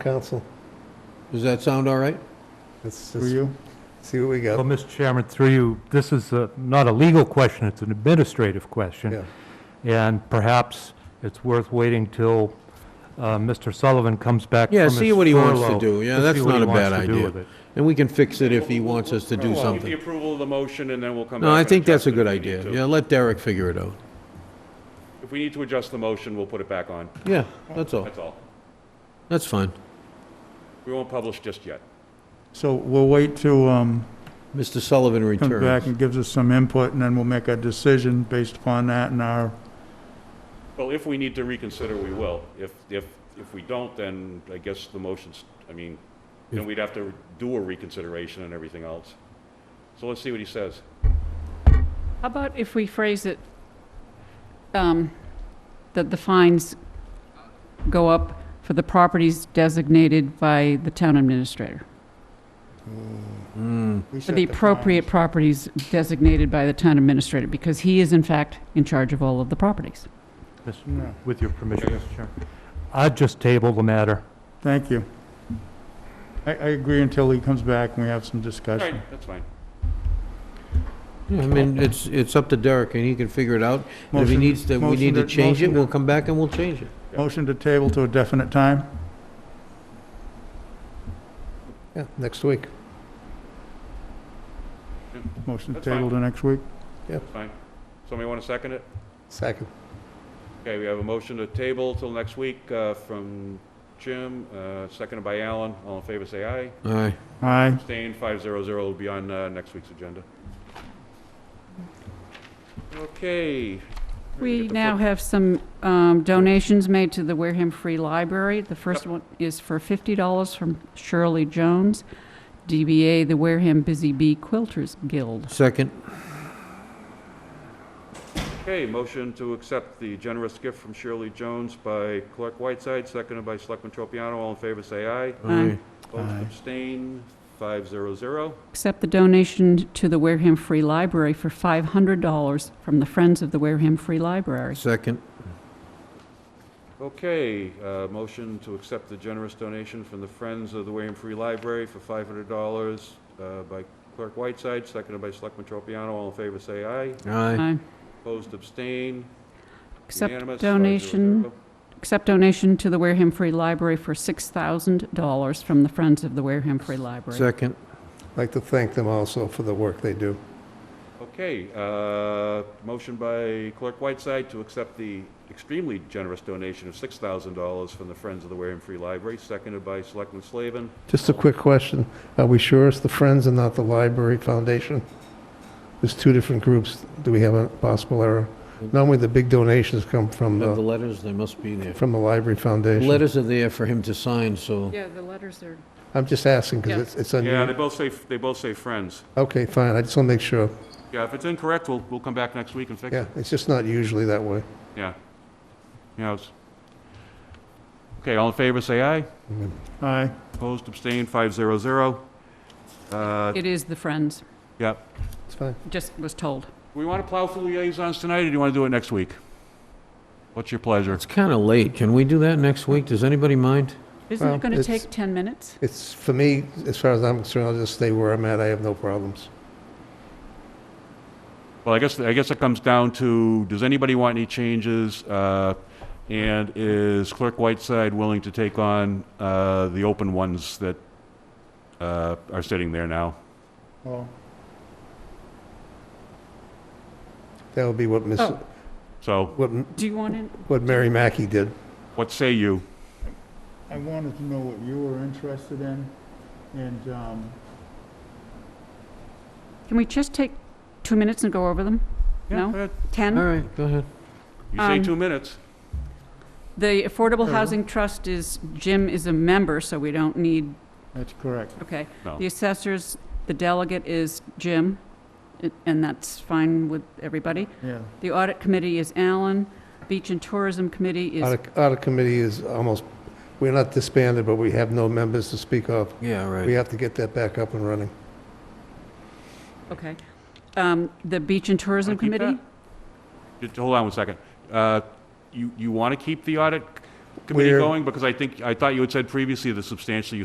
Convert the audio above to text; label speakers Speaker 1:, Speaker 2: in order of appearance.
Speaker 1: council.
Speaker 2: Does that sound all right?
Speaker 1: Let's
Speaker 3: Through
Speaker 1: just
Speaker 3: you?
Speaker 1: see what we
Speaker 4: Well,
Speaker 1: got.
Speaker 4: Mr. Chairman, through you, this is uh, not a legal question, it's an administrative
Speaker 1: Yeah.
Speaker 4: question. And perhaps it's worth waiting till uh, Mr. Sullivan comes back from
Speaker 2: Yeah,
Speaker 4: his furlough.
Speaker 2: see what he wants to do. Yeah,
Speaker 4: to see
Speaker 2: that's
Speaker 4: what he
Speaker 2: not a
Speaker 4: wants
Speaker 2: bad
Speaker 4: to do
Speaker 2: idea.
Speaker 4: with it.
Speaker 2: And we can fix it if he wants us to do
Speaker 5: Well, Get the
Speaker 2: something.
Speaker 5: approval of the motion, and then we'll come back.
Speaker 2: No, I
Speaker 5: and
Speaker 2: think that's
Speaker 5: adjust
Speaker 2: a
Speaker 5: it
Speaker 2: good
Speaker 5: if we need
Speaker 2: idea.
Speaker 5: to.
Speaker 2: Yeah, let Derek figure it out.
Speaker 5: If we need to adjust the motion, we'll put it back on.
Speaker 2: Yeah, that's all.
Speaker 5: That's all.
Speaker 2: That's fine.
Speaker 5: We won't publish just yet.
Speaker 3: So we'll wait till, um,
Speaker 2: Mr. Sullivan
Speaker 3: comes back
Speaker 2: returns.
Speaker 3: and gives us some input, and then we'll make a decision based upon that and our,
Speaker 5: Well, if we need to reconsider, we will. If, if, if we don't, then I guess the motion's, I mean, then we'd have to do a reconsideration and everything else. So let's see what he says.
Speaker 6: How about if we phrase it, um, that the fines go up for the properties designated by the town administrator?
Speaker 2: Mm,
Speaker 6: For the appropriate properties designated by the town administrator, because he is in fact in charge of all of the properties.
Speaker 4: Mis-
Speaker 3: No.
Speaker 4: With your permission, Mr. Chairman. I'd just table the matter.
Speaker 3: Thank you. I, I agree until he comes back and we have some
Speaker 5: All
Speaker 3: discussion.
Speaker 5: right, that's fine.
Speaker 2: Yeah, I mean, it's, it's up to Derek and he can figure it out. And If he
Speaker 3: Motion-
Speaker 2: needs to, we
Speaker 3: motion
Speaker 2: need to
Speaker 3: to-
Speaker 2: change it,
Speaker 3: motion to-
Speaker 2: we'll come back and we'll change it.
Speaker 3: Motion to table to a definite time?
Speaker 1: Yeah, next week.
Speaker 3: Motion to
Speaker 5: That's fine.
Speaker 3: table to next week?
Speaker 5: That's fine. Somebody want to second it?
Speaker 1: Second.
Speaker 5: Okay, we have a motion to table till next week uh, from Jim, uh, seconded by Alan. All in favor, say aye.
Speaker 2: All right.
Speaker 3: Aye.
Speaker 5: Abstain, 500 will be on uh, next week's agenda. Okay.
Speaker 6: We now have some um, donations made to the Wareham Free Library. The first one is for $50 from Shirley Jones, DBA, the Wareham Busy Bee Quilters Guild.
Speaker 2: Second,
Speaker 5: Okay, motion to accept the generous gift from Shirley Jones by Clerk Whiteside, seconded by Selectman Tropiano. All in favor, say aye.
Speaker 2: aye.
Speaker 5: Opposed,
Speaker 3: Aye.
Speaker 5: abstain, 500.
Speaker 6: Accept the donation to the Wareham Free Library for $500 from the Friends of the Wareham Free Library.
Speaker 2: Second,
Speaker 5: Okay, uh, motion to accept the generous donation from the Friends of the Wareham Free Library for $500 uh, by Clerk Whiteside, seconded by Selectman Tropiano. All in favor, say aye.
Speaker 2: aye.
Speaker 6: Aye.
Speaker 5: Opposed, abstain,
Speaker 6: Accept
Speaker 5: unanimous, 500.
Speaker 6: donation, accept donation to the Wareham Free Library for $6,000 from the Friends of the Wareham Free Library.
Speaker 2: Second,
Speaker 1: I'd like to thank them also for the work they do.
Speaker 5: Okay, uh, motion by Clerk Whiteside to accept the extremely generous donation of $6,000 from the Friends of the Wareham Free Library, seconded by Selectman Slavin.
Speaker 1: Just a quick question. Are we sure it's the Friends and not the Library Foundation? There's two different groups. Do we have a possible error? Normally, the big donations come from
Speaker 2: have the
Speaker 1: the,
Speaker 2: letters, they must be there.
Speaker 1: from the Library Foundation.
Speaker 2: Letters are there for him to sign, so,
Speaker 6: Yeah, the letters are.
Speaker 1: I'm just asking
Speaker 6: Yeah.
Speaker 1: because it's, it's
Speaker 5: Yeah, they
Speaker 1: unusual.
Speaker 5: both say, they both say Friends.
Speaker 1: Okay, fine. I just want to make sure.
Speaker 5: Yeah, if it's incorrect, we'll, we'll come back next week and fix
Speaker 1: Yeah,
Speaker 5: it.
Speaker 1: it's just not usually that way.
Speaker 5: Yeah. Yeah. it's- Okay, all in favor, say aye.
Speaker 1: Mm-hmm.
Speaker 3: Aye.
Speaker 5: Opposed, abstained, 500. Uh,
Speaker 6: It is the Friends,
Speaker 5: Yeah.
Speaker 1: It's fine.
Speaker 6: just was told.
Speaker 5: We want to plow through liaisons tonight, or do you want to do it next week? What's your pleasure?
Speaker 2: it's kind of late. Can we do that next week? Does anybody mind?
Speaker 6: Isn't
Speaker 1: Well,
Speaker 6: it going to
Speaker 1: it's-
Speaker 6: take 10 minutes?
Speaker 1: It's, for me, as far as I'm concerned, I'll just stay where I'm at. I have no problems.
Speaker 5: Well, I guess, I guess it comes down to, does anybody want any changes? uh, And is Clerk Whiteside willing to take on uh, the open ones that uh, are sitting there now?
Speaker 3: Well,
Speaker 1: That would be what Miss,
Speaker 6: Oh.
Speaker 5: So
Speaker 1: what,
Speaker 6: Do you want to?
Speaker 1: what Mary Mackey did.
Speaker 5: what say you?
Speaker 3: I wanted to know what you were interested in, and, um,
Speaker 6: Can we just take two minutes and go over them? No?
Speaker 5: Yeah,
Speaker 2: All
Speaker 6: 10?
Speaker 2: right, go ahead.
Speaker 5: You say
Speaker 6: Um,
Speaker 5: two minutes.
Speaker 6: The Affordable
Speaker 3: Sure.
Speaker 6: Housing Trust is, Jim is a member, so we don't need,
Speaker 3: that's correct.
Speaker 6: okay.
Speaker 5: No.
Speaker 6: The assessors, the delegate is Jim, it- and that's fine with everybody.
Speaker 3: Yeah.
Speaker 6: The audit committee is Alan. Beach and Tourism Committee is,
Speaker 1: Audit, audit committee is almost, we're not disbanded, but we have no members to speak of.
Speaker 2: Yeah, all
Speaker 1: We
Speaker 2: right.
Speaker 1: have to get that back up and running.
Speaker 6: okay. Um, The Beach and Tourism
Speaker 5: Wanna keep
Speaker 6: Committee?
Speaker 5: that? Just hold on one second. Uh, You, you want to keep the audit committee
Speaker 1: Where-
Speaker 5: going? Because I think, I thought you had said previously the substantially